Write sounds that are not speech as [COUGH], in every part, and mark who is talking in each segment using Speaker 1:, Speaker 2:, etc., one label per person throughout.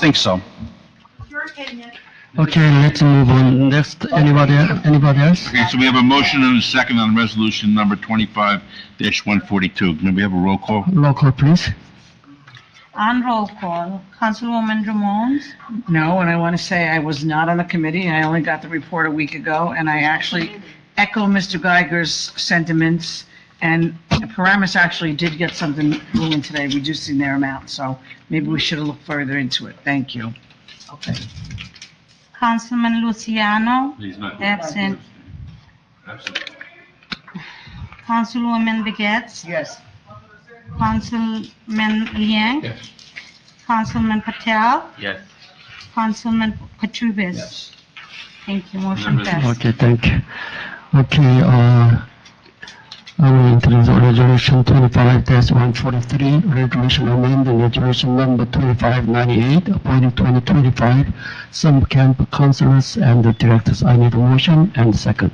Speaker 1: think so.
Speaker 2: Your opinion.
Speaker 3: Okay, let's move on. Next, anybody, anybody else?
Speaker 4: Okay, so we have a motion and a second on resolution number twenty-five one forty-two. Can we have a roll call?
Speaker 3: Roll call, please.
Speaker 2: On roll call, Councilwoman Drummond,
Speaker 5: No, and I want to say I was not on the committee. I only got the report a week ago, and I actually echo Mr. Geiger's sentiments. And Paramus actually did get something moving today, reducing their amount, so maybe we should have looked further into it. Thank you. Okay.
Speaker 2: Councilman Luciano,
Speaker 4: He's not.
Speaker 2: absent.
Speaker 4: Absent.
Speaker 2: Councilwoman Begets,
Speaker 5: Yes.
Speaker 2: Councilman Liang.
Speaker 4: Yes.
Speaker 2: Councilman Patel,
Speaker 4: Yes.
Speaker 2: Councilman Katurbis.
Speaker 4: Yes.
Speaker 2: Thank you, motion
Speaker 4: Members.
Speaker 2: passed.
Speaker 3: Okay, thank you. Okay, uh, I will introduce resolution twenty-five one forty-three, resolution amending resolution number twenty-five ninety-eight, appointing twenty twenty-five some camp counselors and the directors. I need a motion and second.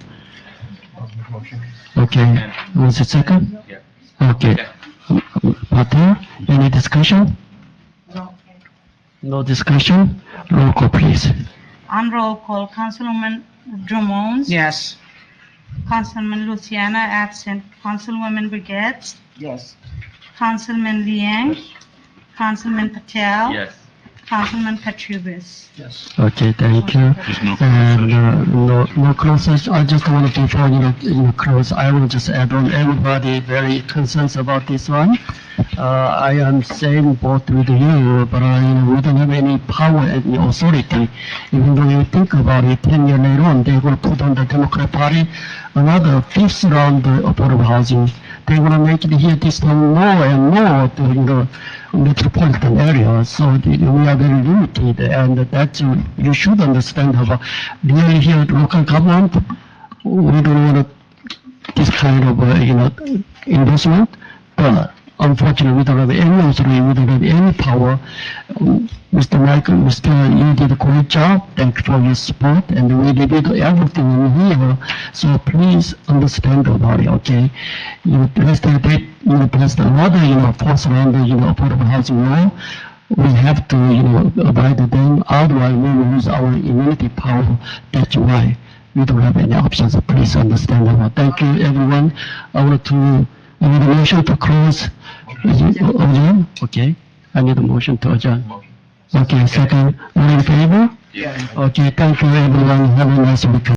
Speaker 3: Okay, was it second?
Speaker 6: Yeah.
Speaker 3: Okay. Patel, any discussion? No discussion? Roll call, please.
Speaker 2: On roll call, Councilwoman Drummond.
Speaker 5: Yes.
Speaker 2: Councilman Luciano, absent. Councilwoman Begets,
Speaker 5: Yes.
Speaker 2: Councilman Liang. Councilman Patel.
Speaker 6: Yes.
Speaker 2: Councilman Katurbis.
Speaker 3: Okay, thank you.
Speaker 4: There's no
Speaker 1: [LAUGHS]
Speaker 3: And
Speaker 4: session.
Speaker 3: uh, no, no closed session, I just want to, before you know, you close, I will just add on, everybody very concerned about this one. Uh, I am same boat with you, but I, you know, we don't have any power and authority. Even though you think about it, ten years later on, they will put on the Democrat Party another fifth round of affordable housing. They want to make it here this time more and more to, you know, metropolitan area, so the- we are very limited, and that you you should understand about really here at local government, we don't want this kind of, uh, you know, investment, but unfortunately, we don't have any authority, we don't have any power. Um, Mr. Michael, Mr. You did a great job, thank you for your support, and we did everything in here, so please understand about it, okay? You passed a bit, you passed another, you know, force around the, you know, affordable housing law. We have to, you know, abide them, otherwise we will lose our immunity power. That's why we don't have any options. Please understand that. Thank you, everyone. I want to, I need a motion to close. Is it adjourn? Okay. I need a motion to adjourn. Okay, second. All in favor?
Speaker 4: Yes.
Speaker 3: Okay, thank you, everyone. Have a nice weekend.